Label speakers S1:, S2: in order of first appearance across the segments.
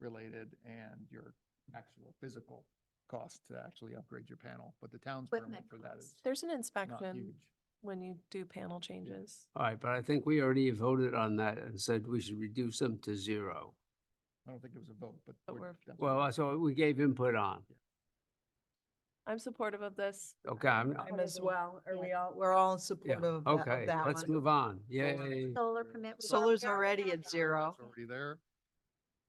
S1: related and your actual physical cost to actually upgrade your panel, but the town's permit for that is
S2: There's an
S1: not
S2: inspection
S1: huge.
S2: when you do panel changes.
S3: All right, but I think we already voted on that and said we should reduce them to zero.
S1: I don't think it was a vote, but.
S2: But
S1: we're-
S2: we're-
S1: that's what
S3: Well,
S1: we're-
S3: that's what we gave input on.
S2: I'm supportive of this.
S3: Okay, I'm,
S4: I'm
S2: Whatever.
S4: as well. Are
S5: Yeah.
S4: we all, we're all in
S3: yeah,
S4: support of that-
S3: okay,
S4: of that
S3: let's
S4: one?
S3: move on.
S1: Solar-
S3: Yay.
S5: Solar permit. we've
S4: Solar's
S5: already-
S4: already at zero.
S1: It's Already there.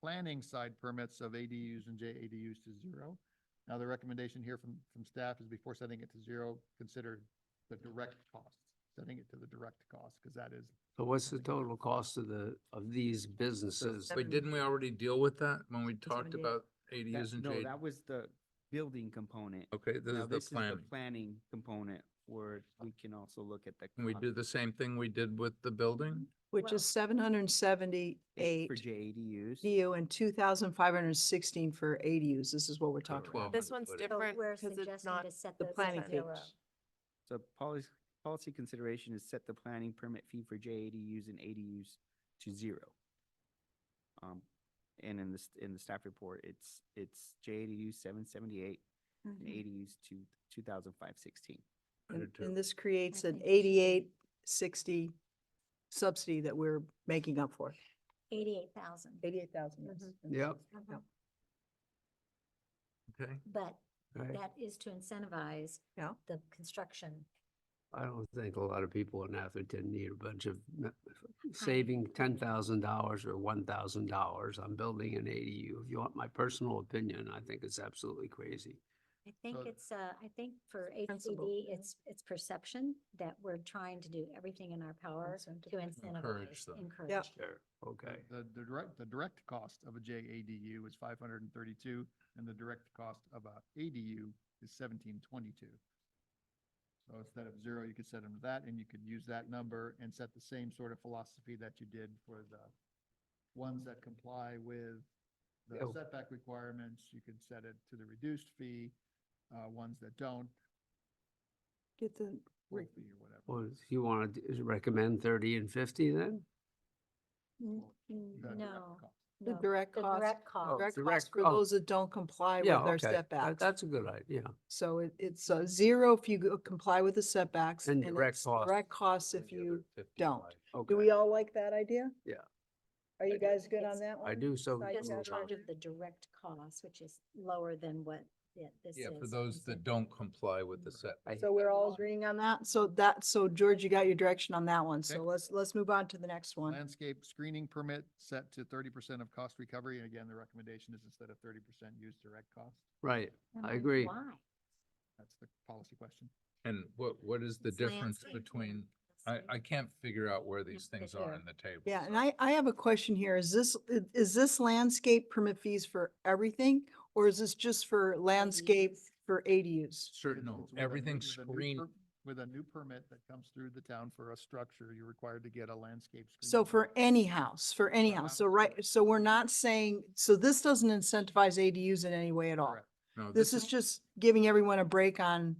S1: Planning side permits of ADUs and JADUs to zero. Now, the recommendation here from, from staff is before setting it to zero, consider the direct cost, setting it to the direct cost, because that is
S3: So what's the total cost of the, of these businesses?
S6: Wait, didn't we already deal with that when we talked
S5: did.
S6: about
S7: That-
S6: ADUs and
S7: No,
S6: J?
S7: that was the building component.
S6: Okay, this
S7: Now,
S6: is the planning.
S7: Planning component, where we can also look at the.
S6: Can we
S7: cost
S6: do the same thing we did with the building?
S4: Which
S2: Well-
S4: is seven hundred and seventy-eight
S7: For JADUs.
S4: DU and two thousand five hundred and sixteen for ADUs. This is what we're talking about.
S6: Twelve.
S2: This
S6: 100
S2: one's
S6: foot. So
S5: So
S2: different
S5: we're
S2: because it's
S5: suggesting
S2: not,
S5: to set
S4: The
S5: those
S4: planning
S5: at
S4: page.
S5: zero.
S7: So policy, policy consideration is set the planning permit fee for JADUs and ADUs to zero. Um, and in this, in the staff report, it's, it's JADU seven seventy-eight
S5: Mm-hmm.
S7: and ADUs to two thousand five sixteen.
S4: And,
S6: Under two.
S4: and this creates
S5: I
S4: an
S5: think we should-
S4: eighty-eight sixty subsidy that we're making up for. Mm-hmm.
S5: Eighty-eight thousand.
S4: Eighty-eight thousand,
S5: Mhm.
S3: Yep.
S6: Okay,
S5: But
S3: Right.
S5: that is to incentivize
S4: Yeah.
S5: the construction.
S3: I don't think a lot of people in Atherton need a bunch of n- saving ten thousand dollars or one thousand dollars on building an ADU. If you want my personal opinion, I think it's absolutely crazy.
S5: I think
S1: So-
S5: it's, uh, I think for
S4: Sensible.
S5: HCD, it's, it's perception that we're trying to do everything in our power to
S4: Incentivize.
S6: Encourage
S5: incentivize,
S6: them.
S5: encourage.
S3: Sure. Okay.
S1: The, the direct, the direct cost of a JADU is five hundred and thirty-two, and the direct cost of a ADU is seventeen twenty-two. So instead of zero, you could set them to that, and you could use that number and set the same sort of philosophy that you did for the ones that comply with the
S3: Yeah.
S1: setback requirements, you could set it to the reduced fee, uh, ones that don't,
S4: Get the,
S1: full
S4: Right.
S1: fee or whatever.
S3: Well, if you want to recommend thirty and fifty then?
S5: Mm,
S1: The
S5: mm,
S1: direct
S5: No,
S1: cost.
S4: the
S5: no,
S4: direct
S5: the
S4: cost,
S5: direct
S6: Oh,
S5: cost.
S4: direct
S3: Oh, direct
S4: cost for
S3: cost.
S4: those that don't comply with
S3: Yeah,
S4: their
S3: okay. That-
S4: setbacks.
S3: That's a good idea.
S4: So it, it's uh, zero if you go- comply with the setbacks.
S3: And direct
S4: it's
S3: costs.
S4: Direct costs
S6: and
S4: if
S6: the other
S4: you
S6: 55.
S4: don't. Do
S3: Okay.
S4: we all like that idea?
S3: Yeah.
S4: Are you
S3: do.
S4: guys good
S5: It's-
S4: on that one?
S3: I do, so.
S4: Side
S5: Just
S4: Yeah.
S5: in
S4: note
S3: moved on.
S5: charge of the direct cost, which is lower than what it- this is.
S6: Yeah, for those that don't comply with the set.
S3: I-
S4: So we're all agreeing on that? So that, so George, you got your direction on that one.
S1: Okay.
S4: So let's, let's move on to the next one.
S1: Landscape screening permit set to thirty percent of cost recovery, and again, the recommendation is instead of thirty percent, use direct cost.
S3: Right.
S5: And
S3: I
S5: then
S3: agree.
S5: Why?
S1: That's the policy question.
S6: And what, what is the
S5: It's
S6: difference
S5: landscape
S6: between, I,
S5: landscape.
S6: I can't figure out where these
S5: Yeah,
S6: things
S5: for
S6: are
S5: sure.
S6: in the table.
S4: Yeah, and
S6: so-
S4: I, I have a question here. Is this, i- is this landscape permit fees for everything? Or is this just for landscape
S5: ADUs.
S4: for ADUs?
S6: Certain,
S1: It's-
S6: no,
S1: it's with a new-
S6: everything's
S1: with a new
S6: screened.
S1: per- With a new permit that comes through the town for a structure, you're required to get a landscape. screening
S4: So for
S1: permit.
S4: any house, for any
S1: For
S4: house. So
S1: house,
S4: right,
S1: correct.
S4: so we're not saying, so this doesn't incentivize ADUs in any way at all.
S1: Correct.
S6: No,
S4: This is just giving everyone a break on,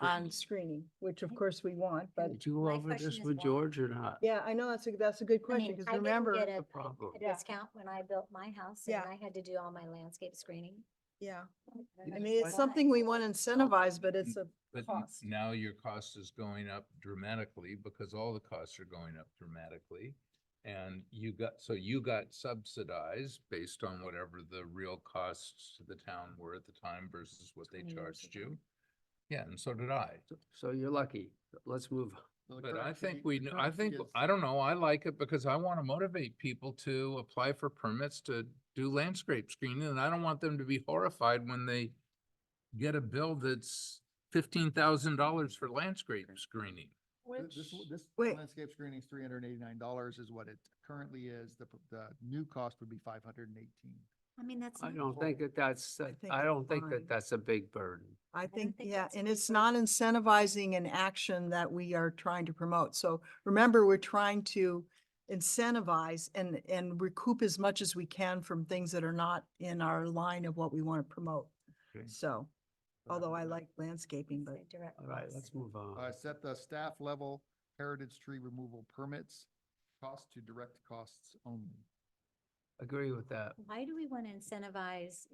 S4: on
S6: screened.
S4: screening, which of course we want, but
S3: Did you go
S5: my
S3: over
S5: question
S3: this
S5: is
S3: with
S5: why?
S3: George or not?
S4: yeah, I know that's a, that's a good
S5: I
S4: question
S5: mean,
S4: because
S5: I didn't
S4: remember.
S5: get
S3: The
S5: a
S6: Oh,
S3: problem.
S5: a
S4: Yeah.
S5: discount when I built my house and
S4: Yeah.
S5: I had to do all my landscape screening.
S4: Yeah, I
S5: That's
S4: mean, it's
S5: why.
S4: something we want to
S5: Oh.
S4: incentivize, but it's a
S6: But n-
S4: cost.
S6: now your cost is going up dramatically because all the costs are going up dramatically. And you got, so you got subsidized based on whatever the real costs to the town were at the time versus what they
S5: 20 years
S6: charged
S5: ago.
S6: you. Yeah, and so did I.
S3: So- So you're lucky. Let's move. on.
S1: So the
S6: But I
S1: current
S6: think
S1: fee-
S6: we,
S1: the
S6: kn-
S1: current
S6: I
S1: fee
S6: think,
S1: is-
S6: I don't know, I like it because I want to motivate people to apply for permits to do landscape screening. And I don't want them to be horrified when they get a bill that's fifteen thousand dollars for landscape screening.
S1: Th- This, w- this
S4: Wait.
S1: landscape screening is three hundred and eighty-nine dollars is what it currently is. The, p- the new cost would be five hundred and eighteen.
S5: I mean, that's.
S3: I
S5: not-
S3: don't think that that's,
S4: I
S3: that-
S4: think
S3: I
S4: it's
S3: don't think
S4: fine.
S3: that that's a big burden.
S4: I
S5: don't
S4: think,
S5: think
S4: yeah,
S5: that's
S4: and
S5: good
S4: it's
S5: for-
S4: not incentivizing an action that we are trying to promote. So remember, we're trying to incentivize and, and recoup as much as we can from things that are not in our line of what we want to promote.
S6: Okay.
S4: So,
S1: So that
S4: althougw
S1: would
S4: I
S1: be-
S4: like landscaping, but
S5: Say direct
S3: All right,
S5: cost.
S3: let's move
S1: Uh,
S3: on.
S1: set the staff level heritage tree removal permits cost to direct costs only.
S3: agree with that.
S5: Why do we want to incentivize